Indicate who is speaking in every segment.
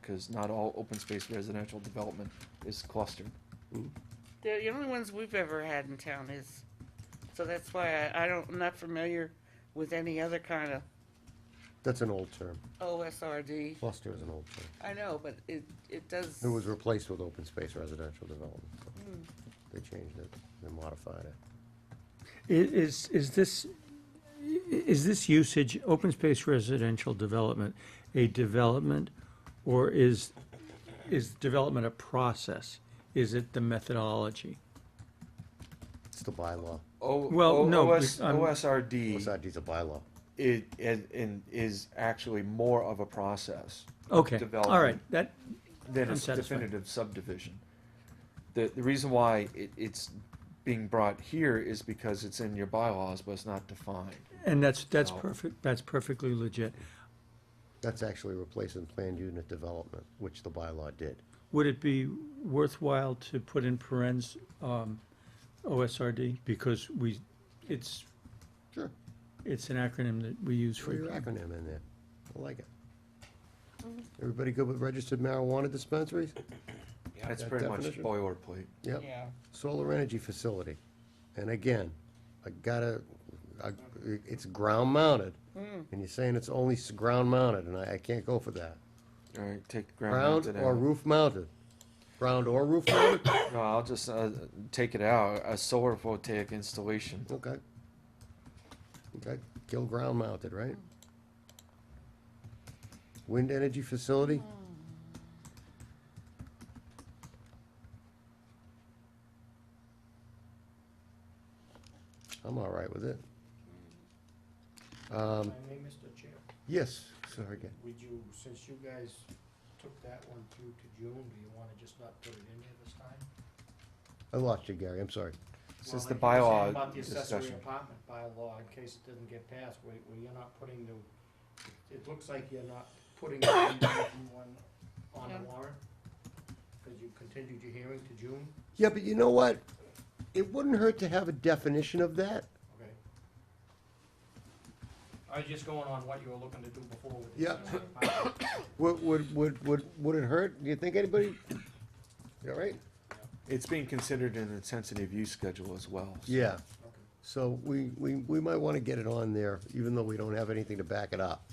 Speaker 1: because not all open space residential development is clustered.
Speaker 2: The, the only ones we've ever had in town is, so that's why I, I don't, I'm not familiar with any other kind of
Speaker 3: That's an old term.
Speaker 2: OSRD.
Speaker 3: Cluster is an old term.
Speaker 2: I know, but it, it does.
Speaker 3: It was replaced with open space residential development. They changed it, they modified it.
Speaker 4: I- Is, is this, i- is this usage, open space residential development, a development? Or is, is development a process? Is it the methodology?
Speaker 3: It's the bylaw.
Speaker 1: O,
Speaker 4: Well,
Speaker 1: O-
Speaker 4: no,
Speaker 1: OS,
Speaker 4: bec- I'm-
Speaker 1: OSRD
Speaker 3: OSRD is a bylaw.
Speaker 1: it, and, and is actually more of a process
Speaker 4: Okay, all right,
Speaker 1: Development.
Speaker 4: that,
Speaker 1: than
Speaker 4: I'm
Speaker 1: a
Speaker 4: satisfied.
Speaker 1: definitive subdivision. The, the reason why it, it's being brought here is because it's in your bylaws, but it's not defined.
Speaker 4: and that's, that's
Speaker 1: No.
Speaker 4: perfect, that's perfectly legit.
Speaker 3: That's actually replacing planned unit development, which the bylaw did.
Speaker 4: Would it be worthwhile to put in parens, um, OSRD? Because we, it's,
Speaker 3: Sure.
Speaker 4: it's an acronym that we use
Speaker 3: Put your
Speaker 4: frequently.
Speaker 3: acronym in there. I like it. Everybody good with registered marijuana dispensaries?
Speaker 1: That's
Speaker 3: that
Speaker 1: pretty much
Speaker 3: definition.
Speaker 1: boilerplate.
Speaker 3: Yep.
Speaker 2: Yeah.
Speaker 3: Solar energy facility. And again, I gotta, I- it's ground mounted. And you're saying it's only s- ground mounted, and I, I can't go for that.
Speaker 1: All right, take ground
Speaker 3: Ground
Speaker 1: mounted
Speaker 3: or
Speaker 1: out.
Speaker 3: roof mounted? Ground or roof mounted?
Speaker 1: No, I'll just uh, take it out. A solar voltaic installation.
Speaker 3: Okay. Okay, kill ground mounted, right? Wind energy facility? I'm all right with it.
Speaker 5: If
Speaker 3: Um,
Speaker 5: I may, Mr. Chair,
Speaker 3: yes, sorry, again.
Speaker 5: would you, since you guys took that one through to June, do you wanna just not put it in here this time?
Speaker 3: I lost you, Gary, I'm sorry.
Speaker 1: Since the
Speaker 5: Well, like you were saying
Speaker 1: bylaw
Speaker 5: About the accessory
Speaker 1: discussion.
Speaker 5: apartment bylaw, in case it doesn't get passed, where, where you're not putting the, it looks like you're not putting the one on
Speaker 2: Yeah.
Speaker 5: the warrant, cause you continued your hearing to June,
Speaker 3: Yeah, but you know what? It wouldn't hurt to have a definition of that.
Speaker 5: okay? I was just going on what you were looking to do before with the
Speaker 3: Yeah.
Speaker 5: accessory apartment.
Speaker 3: Would, would, would, would, would it hurt? Do you think anybody? You all right?
Speaker 1: It's being considered in the intensity of use schedule as well. so-
Speaker 3: Yeah,
Speaker 5: Okay.
Speaker 3: so we, we, we might wanna get it on there, even though we don't have anything to back it up.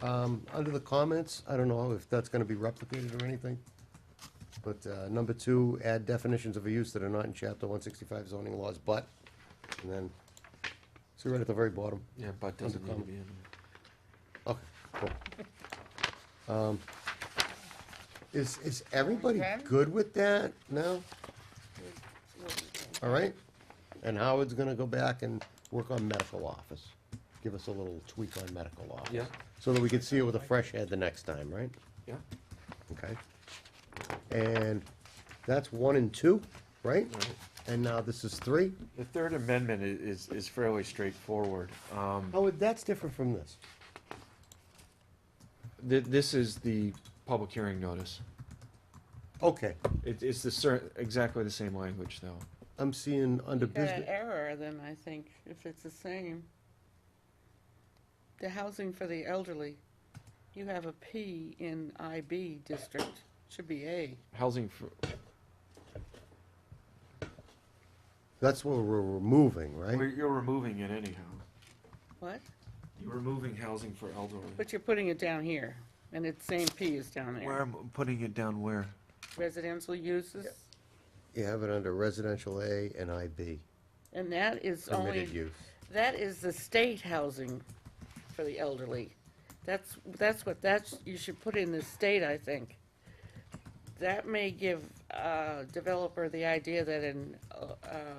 Speaker 3: Um, under the comments, I don't know if that's gonna be replicated or anything, but, uh, number two, add definitions of a use that are not in chapter one sixty-five zoning laws, but, and then, see right at the very bottom.
Speaker 1: Yeah, but doesn't need to
Speaker 3: Undercover.
Speaker 1: be in
Speaker 3: Okay, cool. Um, Is, is everybody
Speaker 2: Okay.
Speaker 3: good with that now?
Speaker 2: Well,
Speaker 3: All right? And Howard's gonna go back and work on medical office. Give us a little tweak on medical office.
Speaker 1: Yeah.
Speaker 3: So that we can see it with a fresh head the next time, right?
Speaker 1: there.
Speaker 3: Okay. And that's one and two, right?
Speaker 1: Yeah. Right.
Speaker 3: And now this is three?
Speaker 1: The third amendment i- is, is fairly straightforward. Um,
Speaker 3: Howard, that's different from this.
Speaker 1: th- this is the public hearing notice.
Speaker 3: Okay,
Speaker 1: It, it's the cer- exactly the same language though.
Speaker 3: I'm seeing under
Speaker 2: you got an
Speaker 3: business,
Speaker 2: error then, I think, if it's the same. The housing for the elderly, you have a P in IB district, should be A.
Speaker 1: Housing for,
Speaker 3: that's what we're removing,
Speaker 1: you're,
Speaker 3: right?
Speaker 1: you're removing it anyhow.
Speaker 2: What?
Speaker 1: You're removing housing for elderly.
Speaker 2: But you're putting it down here, and it's same P is down
Speaker 1: Where
Speaker 2: there.
Speaker 1: am I putting it down where?
Speaker 2: Residential uses,
Speaker 3: You have it under residential A and IB,
Speaker 2: and that is only
Speaker 3: permitted use.
Speaker 2: That is the state housing for the elderly. That's, that's what, that's, you should put in the state, I think. That may give uh developer the idea that an uh,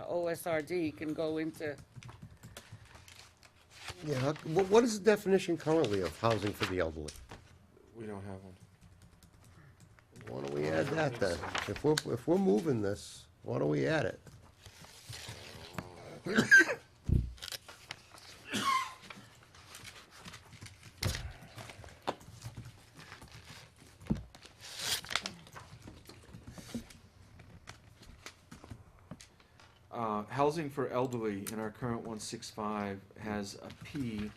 Speaker 2: OSRD can go into,
Speaker 3: Yeah, how- wh- what is the definition currently of housing for the elderly?
Speaker 1: We don't have one.
Speaker 3: Why don't we add that then? If we're, if we're moving this, why don't we add it?
Speaker 1: Uh, housing for elderly in our current one six five has a P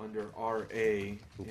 Speaker 1: under RA